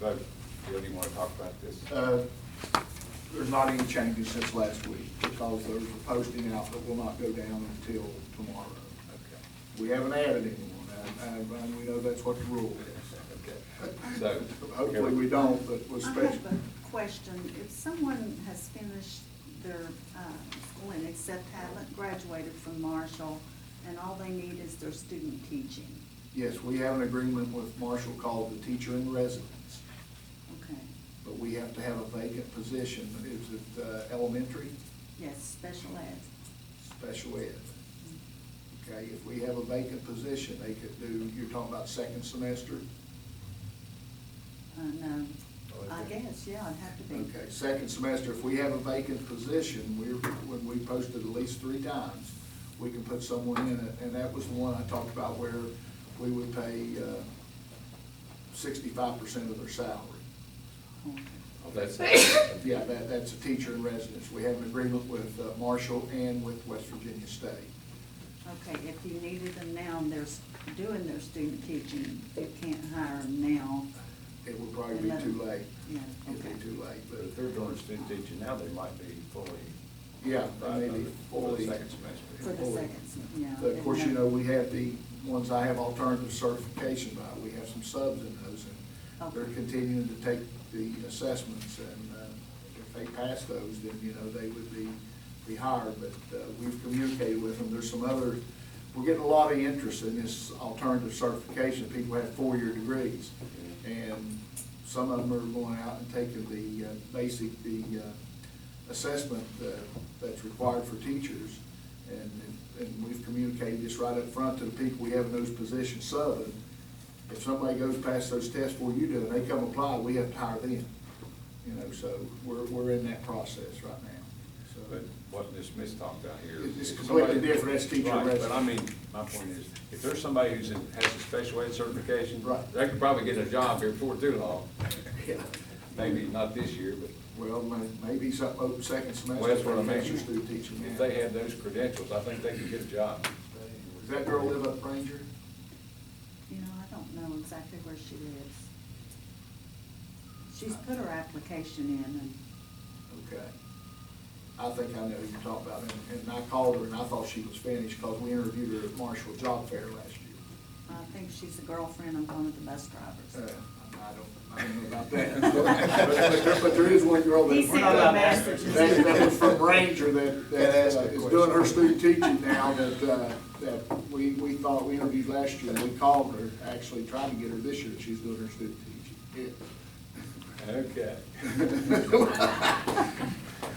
Doug, Bill, do you want to talk about this? Uh, There's not any changes since last week because there's a posting out that will not go down until tomorrow. Okay, We haven't added anyone, and, and- and we know that's what the rule is. okay. So. Hopefully we don't, but we're I special. have a question. If someone has finished their um, school and except haven't graduated from Marshall, and all they need is their student teaching, Yes, we have an agreement with Marshall called the teacher in residence, okay? but we have to have a vacant position. Is it uh, elementary, Yes, special ed. special ed? Okay, if we have a vacant position, they could do, you're talking about second semester? Uh, no, I Okay. guess, yeah, it'd have to be. Okay, second semester, if we have a vacant position, we're, when we posted at least three times, we can put someone in it, and that was the one I talked about where we would pay uh, sixty-five percent of their salary. Okay. That's, Yeah, that, that's a teacher in residence. We have an agreement with uh, Marshall and with West Virginia State. Okay, if you needed them now and they're s- doing their student teaching, you can't hire them now. It would probably be too late. Yeah, It'd okay. be too late, but if but, they're doing student teaching now, they might be fully. yeah, Right, maybe For the fully. second For semester. the second, yeah. But of course, you and know, we have the ones I have alternative certification by, we have some subs in those, and they're Okay. continuing to take the assessments, and uh, if they pass those, then, you know, they would be, be hired, but uh, we've communicated with them, there's some other, we're getting a lot of interest in this alternative certification, people have four-year degrees, and some of them are going out and taking the uh, basic, the uh, assessment uh, that's required for teachers, and, and we've communicated this right up front to the people we have in those positions subbing. If somebody goes past those tests before you do, and they come apply, we have to hire them, you know, so we're, we're in that process right now, so. But wasn't this Miss talked out here? It's If completely somebody- different. That's teacher Right, But I mean, residence. my point is, if there's somebody who's in, has a special ed certification. Right. They could probably get a job here before too long. Yeah. Maybe not this year, but Well, may- maybe something open second semester. Well, that's what I mean. Master's student teaching. if they had those credentials, I think they could get a job. Does that girl live up Ranger? You know, I don't know exactly where she lives. She's put her application in and, Okay. I think I know who you're talking about, and- and I called her and I thought she was finished because we interviewed her at Marshall Job Fair last year. I think she's a girlfriend of one of the bus drivers. Uh, I don't, I don't know about that. But- But there- but there is one girl that. He sent a message. That that was from Ranger that, that uh, is doing her student teaching now that, uh, that we, we thought, we interviewed last year. and We called her, actually tried to get her this year, she's doing her student teaching. Okay.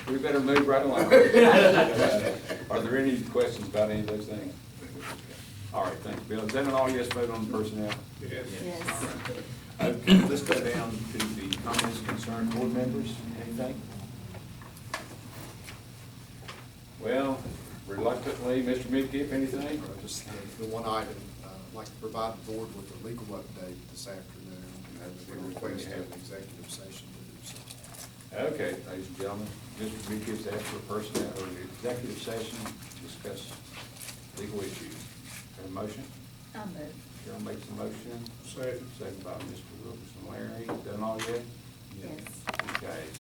We better move right along. Are there any questions about any of those things? All right, thanks, Bill. Is that an all yes vote on personnel? Yes. Yes. All right. Okay, let's go down to the comments concerned board members. Anything? Well, reluctantly, Mr. Midkiff, anything? Just the the one item, uh, I'd like to provide the board with a legal update this afternoon. That's We what we requested have. an executive session to do so. Okay, ladies and gentlemen, Mr. Midkiff's asked for personnel or an executive session to discuss legal issues. Have a motion? I move. Cheryl makes the motion. Second. Second by Mr. Wilkerson Larry. Done all yet? Yes. Okay,